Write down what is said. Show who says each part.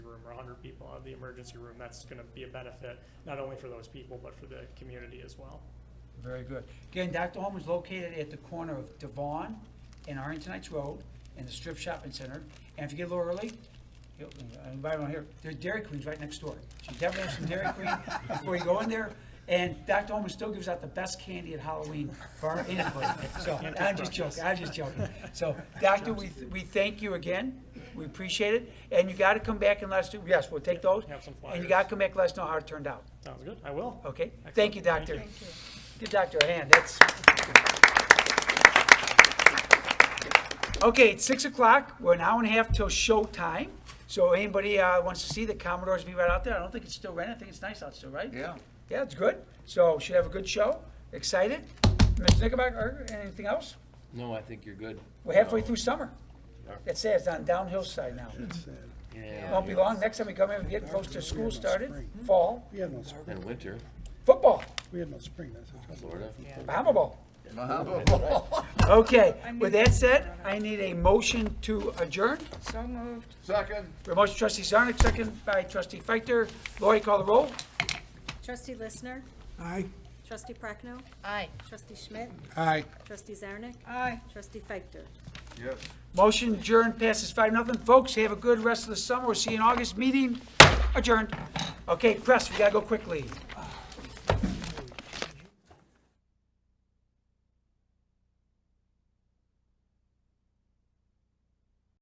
Speaker 1: room or hundred people out of the emergency room, that's gonna be a benefit, not only for those people, but for the community as well.
Speaker 2: Very good. Again, Dr. Home is located at the corner of Devon and Arlington Heights Road and the Strip Shopping Center. And if you get a little early, you'll- anybody around here, there's Dairy Queens right next door. So you definitely have some Dairy Queen before you go in there. And Dr. Holman still gives out the best candy at Halloween for anybody. So I'm just joking, I'm just joking. So, Doctor, we, we thank you again. We appreciate it. And you gotta come back and let us, yes, we'll take those.
Speaker 1: Have some
Speaker 2: And
Speaker 1: flyers.
Speaker 2: you gotta come back and let us know how it turned out.
Speaker 1: Sounds good, I will.
Speaker 2: Okay,
Speaker 1: Excellent.
Speaker 2: thank you, Doctor.
Speaker 1: Thank
Speaker 2: Give Doctor a hand, that's. Okay, it's six o'clock, we're an hour and a half till showtime, so anybody, uh, wants to see the Commodores be right out there, I don't think it's still raining, I think it's nice out still, right?
Speaker 3: Yeah.
Speaker 2: Yeah, it's good, so should have a good show, excited. Mr. Knickerbocker, anything else?
Speaker 4: No, I think you're good.
Speaker 2: We're halfway through summer. That's sad, it's on downhill side now.
Speaker 4: Yeah.
Speaker 2: Won't be long, next time we come in, we're getting close to school started, fall,
Speaker 5: We had no spring,
Speaker 4: And winter,
Speaker 2: football,
Speaker 5: we had no spring, that's a trouble.
Speaker 4: Florida.
Speaker 2: Bahama Bowl.
Speaker 3: Unbelievable.
Speaker 2: Okay,
Speaker 6: I
Speaker 2: with
Speaker 6: move
Speaker 2: that said, I need a motion to adjourn.
Speaker 6: So moved.
Speaker 3: Second.
Speaker 2: A motion trustee Zarnik, second by trustee Feichter. Lori, call the roll.
Speaker 7: Trustee Listener,
Speaker 5: Aye.
Speaker 7: Trustee Prochnow,
Speaker 6: Aye.
Speaker 7: Trustee Schmidt,
Speaker 5: Aye.
Speaker 7: Trustee Zarnik,
Speaker 6: Aye.
Speaker 7: Trustee Feichter.
Speaker 3: Yes.
Speaker 2: Motion adjourned, passes five, nothing. Folks, have a good rest of the summer. We'll see you in August, meeting adjourned. Okay, press, we gotta go quickly.